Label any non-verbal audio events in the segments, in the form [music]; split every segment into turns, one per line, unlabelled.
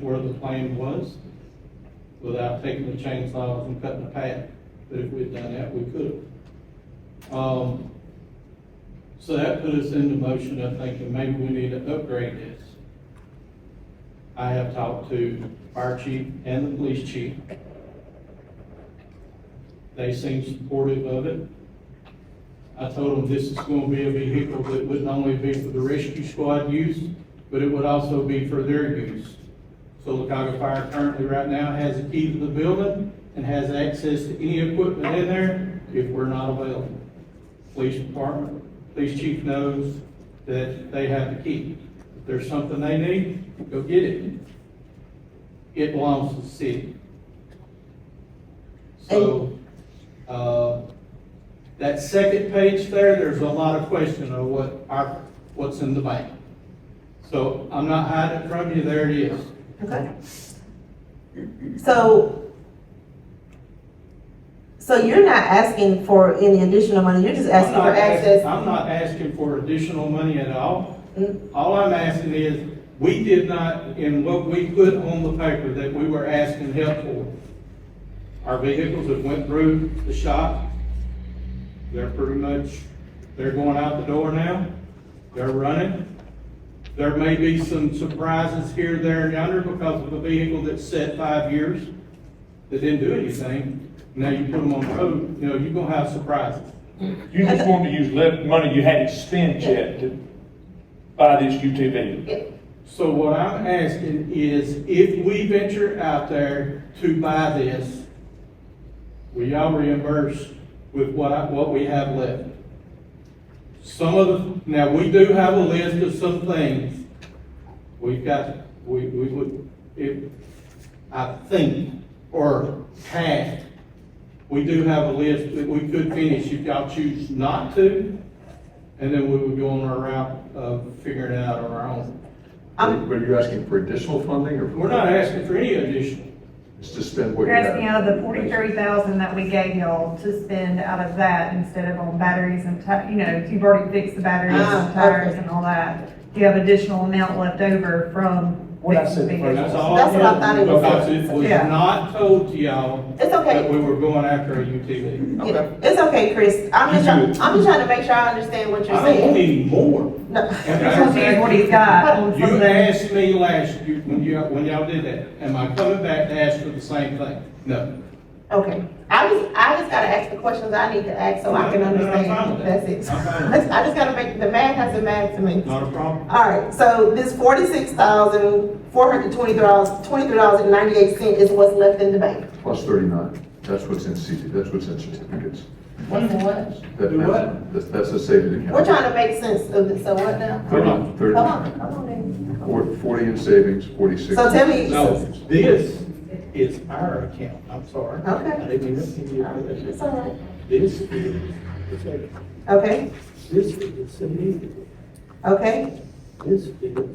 where the plane was without taking the chainsaws and cutting the path. But if we'd done that, we could have. Um, so that put us into motion of thinking maybe we need to upgrade this. I have talked to fire chief and the police chief. They seem supportive of it. I told them this is gonna be a vehicle that would not only be for the rescue squad use, but it would also be for their use. So Lacaga Fire currently right now has a key to the building and has access to any equipment in there if we're not available. Police department, police chief knows that they have the key. If there's something they need, go get it. It belongs to the city. So, uh, that second page there, there's a lot of question of what our, what's in the bank. So I'm not hiding it from you, there it is.
Okay. So, so you're not asking for any additional money, you're just asking
I'm
for
not ask-
access?
I'm not asking for additional money at all.
Mm.
All I'm asking is, we did not, in what we put on the paper that we were asking help for, our vehicles that went through the shop, they're pretty much, they're going out the door now, they're running. There may be some surprises here, there, and yonder because of a vehicle that's set five years that didn't do anything. Now you put them on the road, you know, you're gonna have surprises.
You just wanted to use left money you hadn't spent yet to buy this UTV.
Yeah.
So what I'm asking is, if we venture out there to buy this, will y'all reimburse with what, I- what we have left? Some of the, now, we do have a list of some things, we've got, we, we would, if, I think, or have, we do have a list that we could finish if y'all choose not to, and then we would go on our route of figuring it out on our own.
I'm-
But are you asking for additional funding or?
We're not asking for any additional.
It's to spend what you
You're
have.
asking out of the forty-three thousand that we gave y'all to spend out of that instead of on batteries and ti, you know, if you've already fixed the batteries
Ah,
and tires
okay.
and all that. You have additional amount left over from.
What I said
fixing
first.
vehicles.
That's all.
That's what I thought it was.
Because it was
Yeah.
not told to y'all
It's
that we
okay,
were going after a UTV.
Yeah, it's okay, Chris, I'm just,
You
trying.
do it.
I'm just trying to make sure I understand what you're
I don't want
saying.
any more.
No,
And
It's gonna be
I'm
what he's got on
saying, You
something.
asked me last, you, when you, when y'all did that, am I coming back to ask for the same thing? No.
okay, I just, I just gotta ask the questions I need to ask so I can
No, no, no, I'm fine
understand,
with
that's
that.
it. [laughs]
I'm fine with
That's- I just gotta make, the math has to math to me.
Not a problem.
All right, so this forty-six thousand, four hundred twenty-three dollars, twenty-three dollars and ninety-eight cents is what's left in the bank.
Plus thirty-nine, that's what's in CD, that's what's in certificates.
What's in what?
That-
Do
that's-
what?
That's, that's a savings account.
We're trying to make sense of it, so what now?
Come on.
Thirty-
Come on, come on then.
four- Forty in savings, forty-six.
So tell me-
No, this is our account, I'm sorry.
Okay.
I didn't mean to give you all that.
It's all right.
This is,
Okay,
this is, a need.
okay,
this is.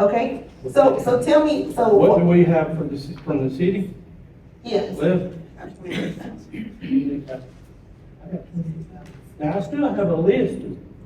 okay. So, so tell me, so,
What do
what-
we have from the, ci- from the city?
yes,
Left? Now, I still have a list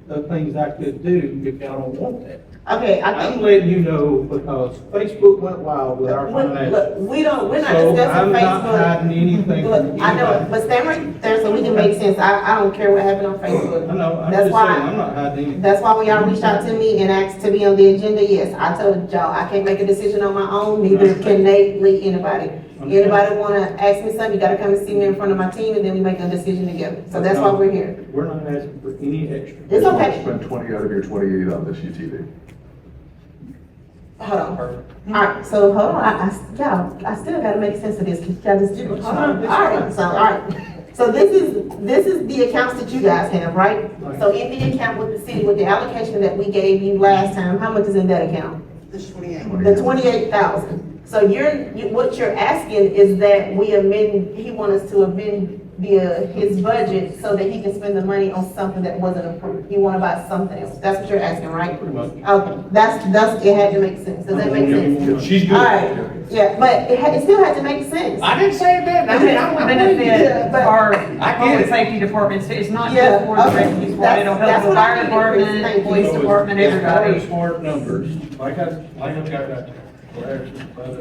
of things I could do if y'all don't want that.
okay, I
I'm
think.
letting you know because Facebook went wild with our
Look,
financials.
look, We don't, we're not
So I'm
discussing
not hiding
Facebook.
anything from
Look, I know, it,
anybody.
but stand right there so we can make sense. I, I don't care what happened on Facebook.
I know, I'm
That's
just saying,
why-
I'm not hiding anything.
That's why when y'all reached out to me and asked to be on the agenda, yes, I told y'all, I can't make a decision on my own, neither can Nate, Lee, anybody. Anybody wanna ask me something, you gotta come and see me in front of my team, and then we make a decision together. So that's why we're here.
We're not asking for any extra.
It's okay.
Spend twenty out of your twenty-eight on this E UTV.
Hold on. Alright, so hold on, I, I, y'all, I still gotta make sense of this, cause y'all just do, hold on, alright, so, alright. So this is, this is the accounts that you guys have, right? So in the account with the city, with the allocation that we gave you last time, how much is in that account?
This twenty-eight.
The twenty-eight thousand. So you're, you, what you're asking is that we amend, he wants us to amend the, uh, his budget so that he can spend the money on something that wasn't approved. You wanna buy something else. That's what you're asking, right?
Pretty much.
Okay, that's, that's, it had to make sense. Does that make sense?
She's good.
Alright, yeah, but it had, it still had to make sense.
I didn't say it did, I mean, I went.
Yeah,
Benefit
but-
our
I get
public
it.
safety departments, it's not
Yeah,
just for the
okay.
rescue squad,
That's-
it'll help
that's
the
what I
fire
needed, Chris. Thank you.
department, police department,
As far as
everybody.
hard numbers,
Like I, like I got that.
There's-